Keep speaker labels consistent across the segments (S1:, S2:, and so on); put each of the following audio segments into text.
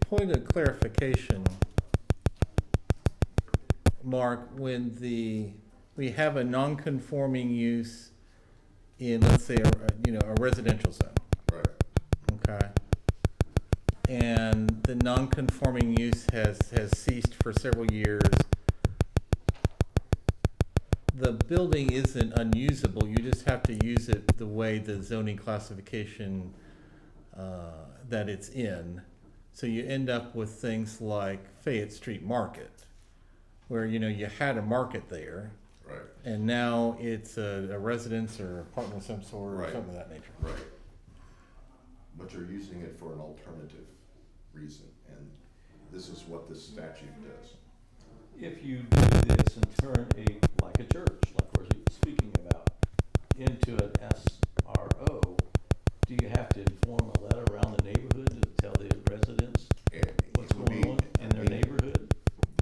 S1: point of clarification, Mark, when the, we have a non-conforming use in, let's say, a- you know, a residential zone,
S2: Right.
S1: okay? And the non-conforming use has, has ceased for several years. The building isn't unusable, you just have to use it the way the zoning classification uh, that it's in. So you end up with things like Fayette Street Market, where, you know, you had a market there,
S2: Right.
S1: and now it's a a residence or apartment of some sort, or
S2: Right.
S1: something of that nature.
S2: Right. But you're using it for an alternative reason, and this is what this statute does.
S3: If you do this and turn a, like a church, like we're speaking about, into an SRO, do you have to inform a letter around the neighborhood to tell the residents
S2: And it
S3: what's
S2: would
S3: going
S2: be-
S3: on in their neighborhood?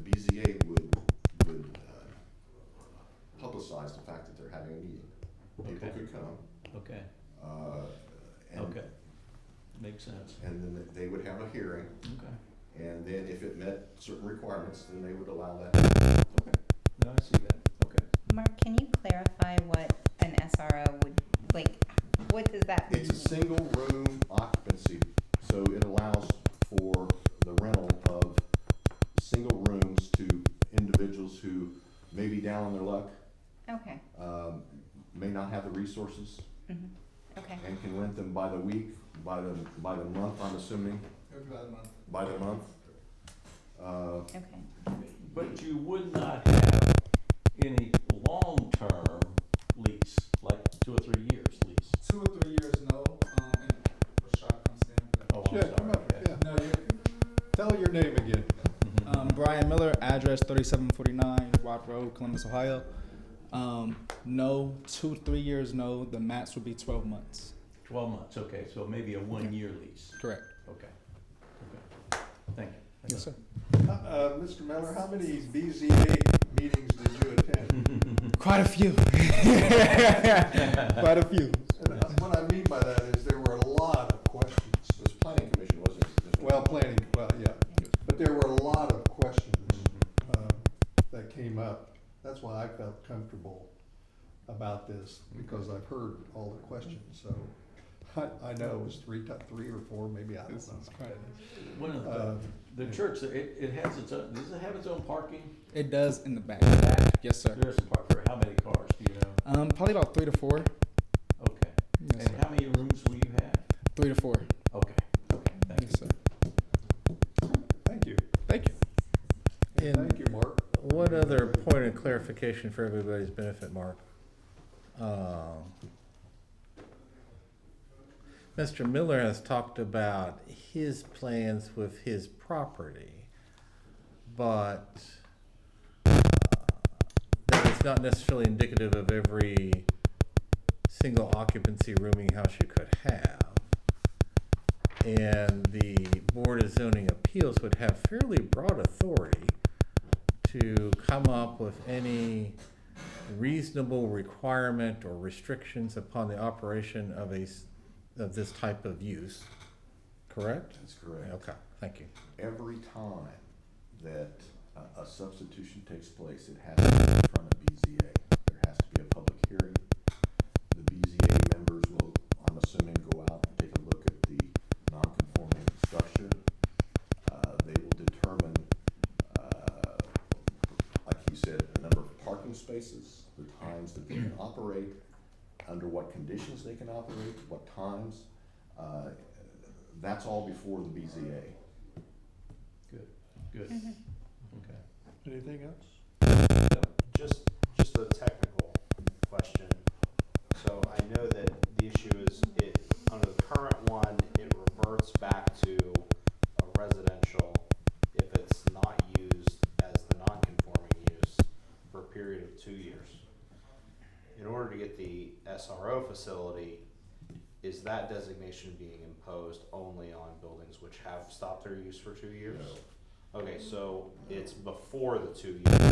S2: The BZA would, would uh, publicize the fact that they're having a meeting. People
S3: Okay.
S2: could come,
S3: Okay,
S2: uh, and,
S3: okay, makes sense,
S2: and then they would have a hearing,
S3: okay,
S2: and then if it met certain requirements, then they would allow that.
S3: okay, now I see that, okay.
S4: Mark, can you clarify what an SRO would, like, what does that mean?
S2: It's a single room occupancy, so it allows for the rental of single rooms to individuals who may be down on their luck,
S4: Okay,
S2: um, may not have the resources,
S4: mhm, okay,
S2: and can rent them by the week, by the, by the month, I'm assuming, by the month. Uh,
S4: okay.
S3: But you would not have any long-term lease, like two or three years lease.
S5: Two or three years, no, um, and Rashad comes in.
S3: Oh, I'm
S6: Yeah, come
S3: sorry,
S6: up,
S3: okay.
S6: yeah.
S5: No, you,
S6: Tell your name again.
S3: Mhm.
S5: um, Brian Miller, address thirty-seven forty-nine, Rock Road, Columbus, Ohio. Um, no, two, three years, no, the max would be twelve months.
S3: Twelve months, okay, so maybe a one-year lease,
S5: Correct.
S3: okay, okay, thank you.
S5: Yes, sir.
S6: Uh, uh, Mr. Miller, how many BZA meetings did you attend?
S5: Quite a few. Quite a few.
S6: And uh, what I mean by that is there were a lot of questions.
S2: This planning commission wasn't. this one.
S6: Well, planning, well, yeah, but there were a lot of questions
S2: Mm-hmm.
S6: um, that came up. That's why I felt comfortable about this, because I've heard all the questions, so I, I know it was three, ti- three or four, maybe, I don't
S5: It's- it's
S6: know.
S5: quite-
S3: One of the,
S6: Uh,
S3: the church, it, it has its own, does it have its own parking?
S5: It does in the back.
S3: Back?
S5: Yes, sir.
S3: There's a park for how many cars, do you know?
S5: Um, probably about three to four.
S3: Okay,
S5: Yes,
S3: and
S5: sir.
S3: how many rooms will you have?
S5: Three to four.
S3: Okay, okay, thank you.
S5: Yes, sir.
S6: Thank you,
S5: Thank you.
S1: And-
S6: thank you, Mark.
S1: One other point of clarification for everybody's benefit, Mark. Um, Mr. Miller has talked about his plans with his property, but uh, that is not necessarily indicative of every single occupancy rooming house you could have. And the Board of Zoning Appeals would have fairly broad authority to come up with any reasonable requirement or restrictions upon the operation of a, s- of this type of use, correct?
S2: That's correct.
S1: Okay, thank you.
S2: Every time that a, a substitution takes place, it has to be in front of BZA. There has to be a public hearing. The BZA members will, I'm assuming, go out and take a look at the non-conforming structure. Uh, they will determine, uh, like you said, the number of parking spaces, the times that they can operate, under what conditions they can operate, what times. Uh, That's all before the BZA.
S3: Good, good, okay.
S6: Anything else?
S7: Just, just a technical question. So I know that the issue is it, under the current one, it reverts back to a residential if it's not used as the non-conforming use for a period of two years. In order to get the SRO facility, is that designation being imposed only on buildings which have stopped their use for two years? Okay, so it's before the two years